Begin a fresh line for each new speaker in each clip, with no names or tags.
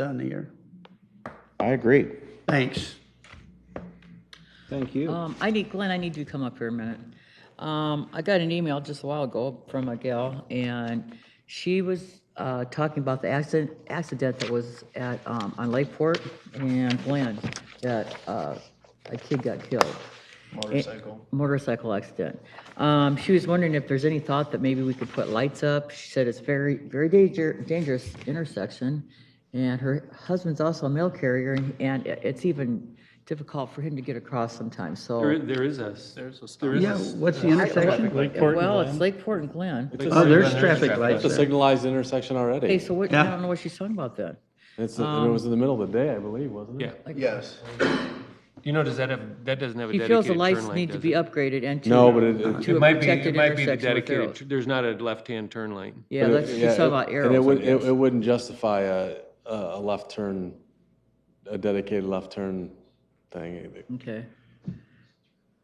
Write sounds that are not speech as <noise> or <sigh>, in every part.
done here.
I agree.
Thanks.
Thank you.
Um, I need, Glenn, I need you to come up here a minute. Um, I got an email just a while ago from a gal, and she was, uh, talking about the accident, accident that was at, um, on Lakeport and Glen, that, uh, a kid got killed. Motorcycle. Motorcycle accident. Um, she was wondering if there's any thought that maybe we could put lights up. She said it's very, very danger, dangerous intersection. And her husband's also a mail carrier, and- and it- it's even difficult for him to get across sometimes, so.
There, there is a. There's a. There is
Yeah,
a.
what's the
uh,
intersection?
Well, it's Lakeport and Glen.
Oh, there's traffic lights
It's a
there.
signalized intersection
Okay,
already.
so what, I don't know what she's talking about then.
It's, it was in the middle of the day, I believe, wasn't it?
Yeah. Yes. You know, does that have, that doesn't have a
She feels
dedicated
the
turn
lights
lane,
need to
does
be
it?
upgraded and to.
No, but it- it-
To
It
a
might be,
protected
it might be the
intersection with
dedicated,
arrows.
tu- there's not a left-hand turn lane.
Yeah,
But it-
that's, she's
yeah,
talking
it-
about
And it
arrows, I
would, it
guess.
it wouldn't justify a, a a left turn, a dedicated left turn thing. either.
Okay.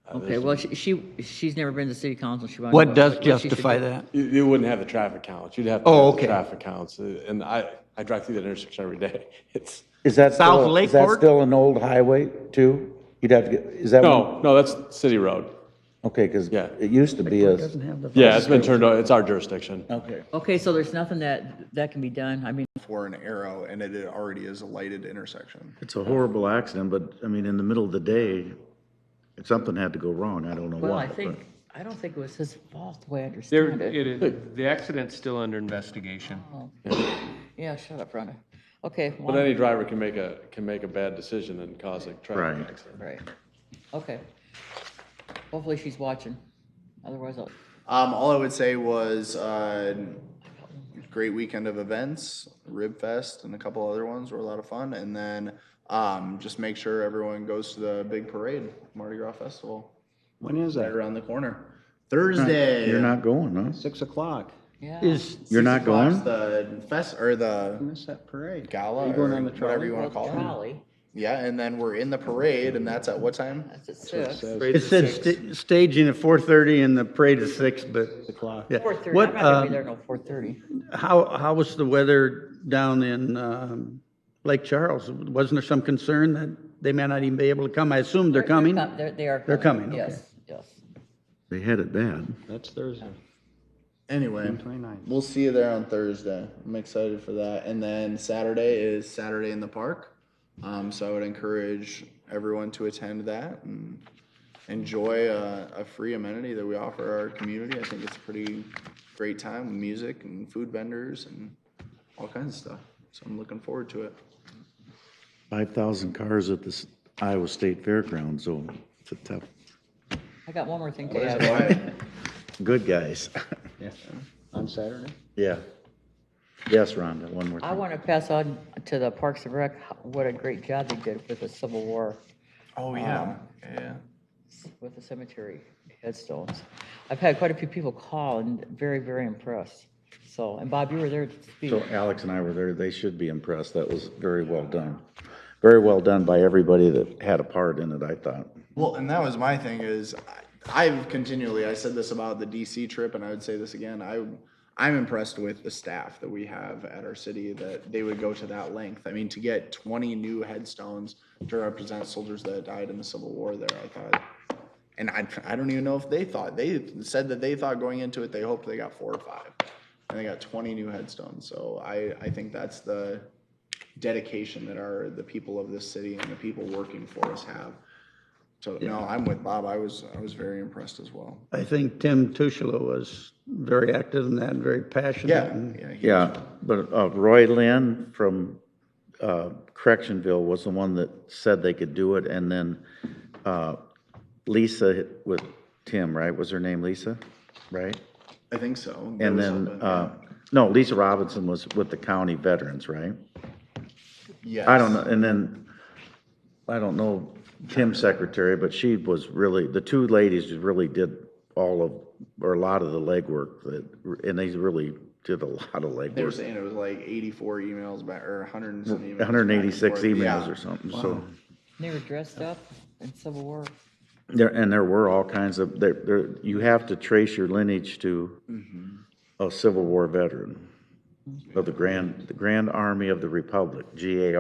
Uh,
Okay,
there's-
well, she, she, she's never been to city council, she. wanted to know
What does
she should
justify
do.
that?
You, you wouldn't have the traffic counts. You'd have to
Oh,
have the
okay.
traffic counts. Uh, And I, I drive through that intersection every day. <laughs> It's,
Is that
South
still, is that
Lakeport?
still an old highway too? You'd have to get, is that? one-
no, no, that's city road.
Okay, because
Yeah.
it used to be a,
Doesn't have the.
Yeah, it's been turned, o- it's our jurisdiction.
okay.
Okay, so there's nothing that, that can be done, I mean,
for an arrow and it already is a lighted intersection.
It's a horrible accident, but I mean, in the middle of the day, something had to go wrong. I don't know what.
well, I
but-
think, I don't think it was his fault, the way I
There,
understand it.
it is, the accident's still under investigation.
Yeah, shut up, Rhonda. Okay.
But
one-
any driver can make a, can make a bad decision and cause a traffic
Right.
accident.
Right, okay. Hopefully she's watching, otherwise I'll.
Um, all I would say was, uh, great weekend of events, Rib Fest and a couple other ones were a lot of fun. And then, um, just make sure everyone goes to the big parade, Mardi Gras Festival,
When is
right
that?
around the corner. Thursday.
You're not going, huh?
Six o'clock.
Yeah.
Is,
You're not
Six o'clock's
going?
The fest, or the
Miss that parade. Are
gala,
you
or
going on the
whatever
trolley?
you wanna
Well,
call it.
Trolley,
Yeah, and then we're in the parade and that's at what time?
that's at six.
it said sta- staging at four thirty and the parade at six, but.
o'clock.
yeah.
Four thirty, I'd
What,
rather be there
uh,
until four thirty.
how, how was the weather down in, um, Lake Charles? Wasn't there some concern that they may not even be able to come? I assume they're coming.
They're, they are.
They're coming, okay.
Yes, yes.
They had it bad.
That's Thursday.
Anyway,
29th.
we'll see you there on Thursday. I'm excited for that. And then Saturday is Saturday in the park. Um, so I would encourage everyone to attend that and enjoy uh, a, a free amenity that we offer our community. I think it's a pretty great time with music and food vendors and all kinds of stuff. So I'm looking forward to it.
Five thousand cars at this Iowa State Fairgrounds, so it's a tough,
I got one more thing to
It's
add.
quiet.
good guys.
Yeah. On Saturday?
Yeah. Yes, Rhonda, one more
I
thing.
want to pass on to the Parks and Rec, what a great job they did with the Civil War,
Oh, yeah. Yeah.
with the cemetery headstones. I've had quite a few people call and very, very impressed. So, and Bob, you were there to speak.
So Alex and I were there. They should be impressed. That was very well done. Very well done by everybody that had a part in it, I thought.
Well, and that was my thing is I- I've continually I said this about the DC trip and I would say this again. I I'm impressed with the staff that we have at our city that they would go to that length. I mean, to get 20 new headstones to represent soldiers that died in the Civil War there, I thought and I, I don't even know if they thought they said that they thought going into it they hoped they got four or five and they got 20 new headstones so i i think that's the dedication that our the people of this city and the people working for us have so no i'm with bob i was i was very impressed as well
I think Tim Tushla was very active in that and very passionate.
yeah
and-
yeah, he-
Yeah, but uh, Roy Lynn from uh, Correctionville was the one that said they could do it, and then uh, Lisa with Tim, right? Was her name Lisa, right?
i think so There
And
was
then,
something,
uh, no, Lisa Robinson was with the county veterans, right?
yeah.
I don't know, and then, I don't know Tim's secretary, but she was really, the two ladies really did all of, or a lot of the legwork that, and they really did a lot of legwork.
they were saying it was like 84 emails back or 100 and some emails back and
186
forth.
emails
Yeah.
or something, so.
They were dressed up in Civil War.
There, and there were all kinds of, there,
Mm-hmm.
there, you have to trace your lineage to a Civil War veteran. of the Grand, the Grand Army of the Republic, GAR.